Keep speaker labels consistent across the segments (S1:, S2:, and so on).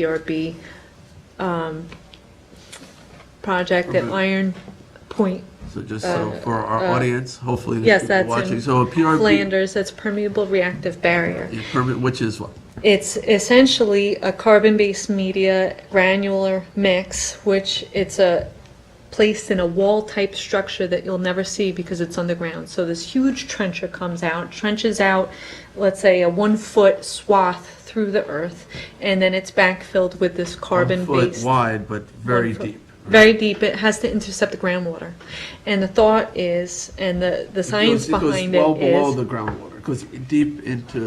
S1: PRB um, project at
S2: Mhm.
S1: Iron Point.
S2: So just so
S1: Uh,
S2: for our
S1: uh,
S2: audience, hopefully the
S1: Yes,
S2: people
S1: that's
S2: watching,
S1: in
S2: so a PRB,
S1: Flanders, that's permeable reactive barrier.
S2: a permit, which is what?
S1: It's essentially a carbon-based media granular mix, which it's a, placed in a wall-type structure that you'll never see because it's underground. So this huge trencher comes out, trenches out, let's say, a one-foot swath through the earth, and then it's backfilled with this
S2: One
S1: carbon-based
S2: foot wide, but very
S1: foot.
S2: deep.
S1: very deep. It has to intercept the groundwater. And the thought is, and the, the
S2: It
S1: science
S2: goes- it goes
S1: behind
S2: Well
S1: it
S2: below
S1: is,
S2: the groundwater, goes deep into,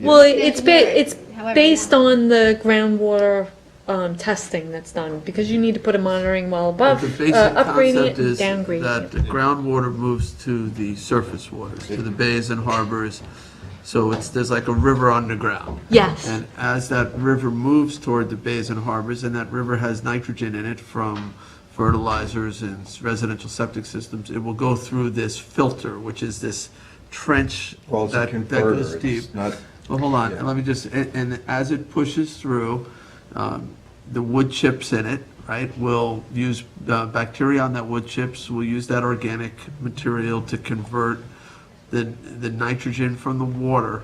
S1: well, it's, ba-
S3: Yeah,
S1: it's
S3: however you
S1: based
S3: want.
S1: on the groundwater um, testing that's done, because you need to put a monitoring well above,
S2: but the
S1: uh,
S2: basic
S1: up gradient
S2: concept
S1: and
S2: is
S1: down
S2: that
S1: gradient.
S2: the groundwater moves to the surface waters, to the bays and harbors. So it's, there's like a river underground.
S1: Yes,
S2: And as that river moves toward the bays and harbors, and that river has nitrogen in it from fertilizers and s- residential septic systems, it will go through this filter, which is this trench
S4: Well, it's a
S2: that that goes
S4: converter,
S2: deep.
S4: it's not,
S2: Well, hold on,
S4: Yeah.
S2: let me just, and, and as it pushes through, um, the wood chips in it, right, will use, uh, bacteria on that wood chips, will use that organic material to convert the, the nitrogen from the water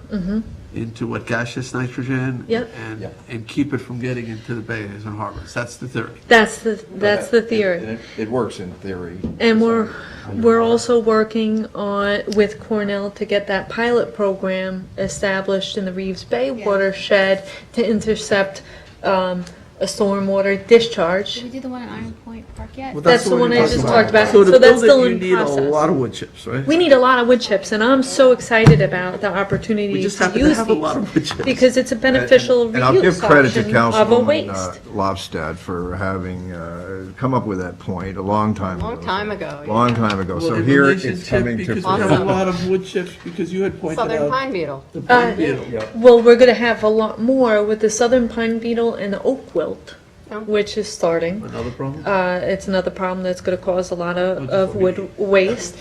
S2: into what gaseous nitrogen?
S1: Mm-hmm. Yep.
S2: And,
S4: Yeah.
S2: and keep it from getting into the bays and harbors, that's the theory.
S1: that's the, that's the
S4: It-
S1: theory.
S4: It, it works in theory.
S1: And we're, we're also working on, with Cornell to get that pilot program established in the Reeves Bay
S3: Yeah.
S1: watershed to intercept um, a stormwater discharge.
S3: Did we do the one in Iron Point Park yet?
S1: that's the one I just talked about. So
S2: to
S1: that's
S2: build it,
S1: still in
S2: You need
S1: process.
S2: a lot of wood chips, right?
S1: We need a lot of wood chips, and I'm so excited about the opportunity
S2: We just
S1: to
S2: happen to
S1: use
S2: have a
S1: these
S2: lot of wood chips.
S1: because it's a beneficial
S5: And I'll give
S1: reuse
S5: credit to
S1: option of a
S5: Councilwoman uh,
S1: waste.
S5: Lobstad for having uh, come up with that point a long time ago.
S6: Long time ago, yeah.
S5: Long time ago.
S2: Well,
S5: So
S2: in
S5: here
S2: relationship,
S5: it's coming to
S2: Because we have a
S6: fruition.
S2: lot of wood chips, because you had pointed
S6: Southern
S2: out
S6: pine beetle.
S2: the pine beetle.
S1: Uh, Well, we're going to have a lot more with the southern pine beetle and the oak wilt,
S6: Oh.
S1: which is starting.
S2: Another problem?
S1: Uh, it's another problem that's going to cause a lot
S2: Oh,
S1: of,
S2: just
S1: of
S2: for me.
S1: wood waste.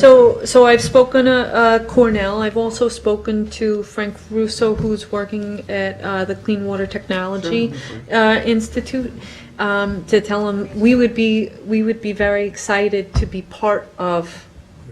S1: so, so I've spoken to uh, Cornell. I've also spoken to Frank Russo, who's working at uh, the Clean Water Technology uh, Institute, um, to tell him we would be we would be very excited to be part of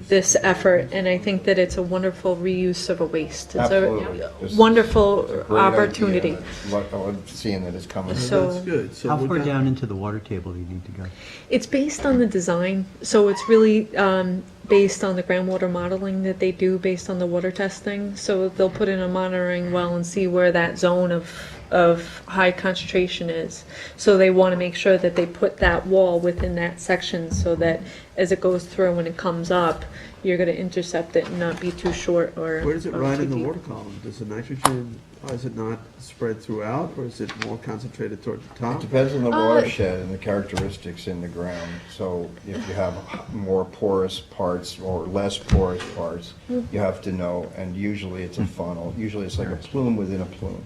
S1: this effort. And I think that it's a wonderful reuse of a waste. It's
S4: Absolutely.
S1: a
S4: This is
S1: wonderful
S4: It's a great idea,
S1: opportunity.
S4: and it's what- I'm seeing that it's coming.
S1: So-
S2: That's good. So
S7: How
S2: we're
S7: far
S2: gonna-
S7: down into the water table do you need to go?
S1: It's based on the design, so it's really um, based on the groundwater modeling that they do based on the water testing. So they'll put in a monitoring well and see where that zone of, of high concentration is. So they want to make sure that they put that wall within that section so that as it goes through and it comes up, you're going to intercept it and not be too short or.
S2: Where does it
S1: or
S2: ride
S1: too
S2: in the
S1: deep.
S2: water column? Does the nitrogen, why is it not spread throughout, or is it more concentrated toward the
S4: It
S2: top?
S4: depends on the
S1: Uh,
S4: watershed and the characteristics in the ground. So if you have more porous parts or less porous parts, you have to know, and usually it's a funnel. Usually it's like a plume within a plume.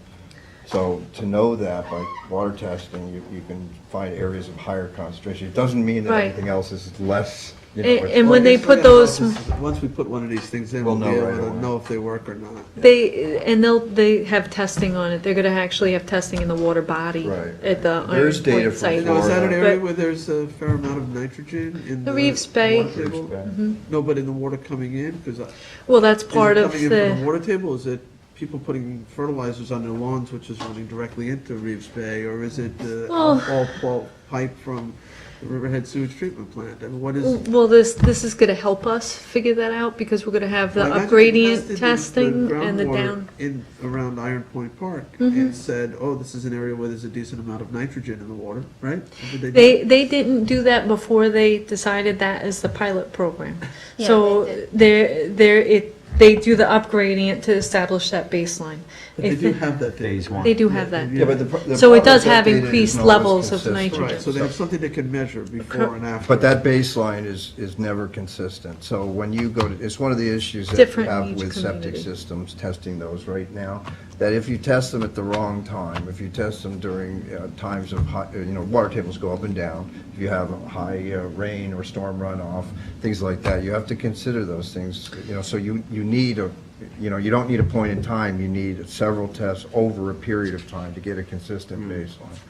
S4: So to know that by water testing, you, you can find areas of higher concentration. It doesn't mean that
S1: Right.
S4: everything else is less, you know.
S1: And-
S4: it's-
S1: and when they put
S2: Well, I
S1: those.
S2: guess we gotta know if this is- Once we put one of these things in, we'll
S4: We'll
S2: be
S4: know right
S2: able to
S4: away.
S2: know if they work or not.
S1: They, and they'll, they have testing on it. They're gonna actually have testing in the water body
S4: Right.
S1: at the
S4: There is
S1: Iron
S4: data
S1: Point
S4: from
S1: site.
S2: Now, is that an area
S1: uh, But-
S2: where there's a fair amount of nitrogen in the?
S1: The Reeves Bay. Mm-hmm.
S2: water table? No, but in the water coming in, because is
S1: Well, that's
S2: it
S1: part of
S2: coming in from the
S1: the,
S2: water table? Is it people putting fertilizers on their lawns, which is running directly into Reeves Bay? Or is it the
S1: Well-
S2: all pulp pipe from the Riverhead sewage treatment plant? I mean, what is?
S1: well, this, this is gonna help us figure that out because we're gonna have the
S2: Well,
S1: up
S2: imagine they
S1: gradient
S2: tested the-
S1: testing
S2: the
S1: and the
S2: groundwater
S1: down. Mm-hmm.
S2: In, around Iron Point Park, and said, oh, this is an area where there's a decent amount of nitrogen in the water, right? Did do
S1: They, they didn't do that before they decided that as the pilot program.
S3: Yeah, they
S1: So
S3: did.
S1: they're, they're, it, they do the up gradient to establish that baseline.
S2: But they
S1: If
S2: do
S1: they-
S2: have that data.
S7: Phase one.
S1: They do have that.
S2: Yeah,
S4: Yeah, but the pro- the
S1: So it
S4: problem
S1: does
S4: is that
S1: have
S4: data isn't
S1: increased
S4: always
S1: levels of
S4: consistent.
S1: nitrogen.
S2: Right, so they have something they can measure before and after.
S5: But that baseline is, is never consistent. So when you go to, it's one of the issues that we
S1: Different in
S5: have
S1: each
S5: with septic
S1: community.
S5: systems, testing those right now.
S4: that if you test them at the wrong time, if you test them during uh, times of high, you know, water tables go up and down, if you have high uh, rain or storm runoff, things like that, you have to consider those things, you know, so you, you need a, you know, you don't need a point in time, you need several tests over a period of time to get a consistent baseline.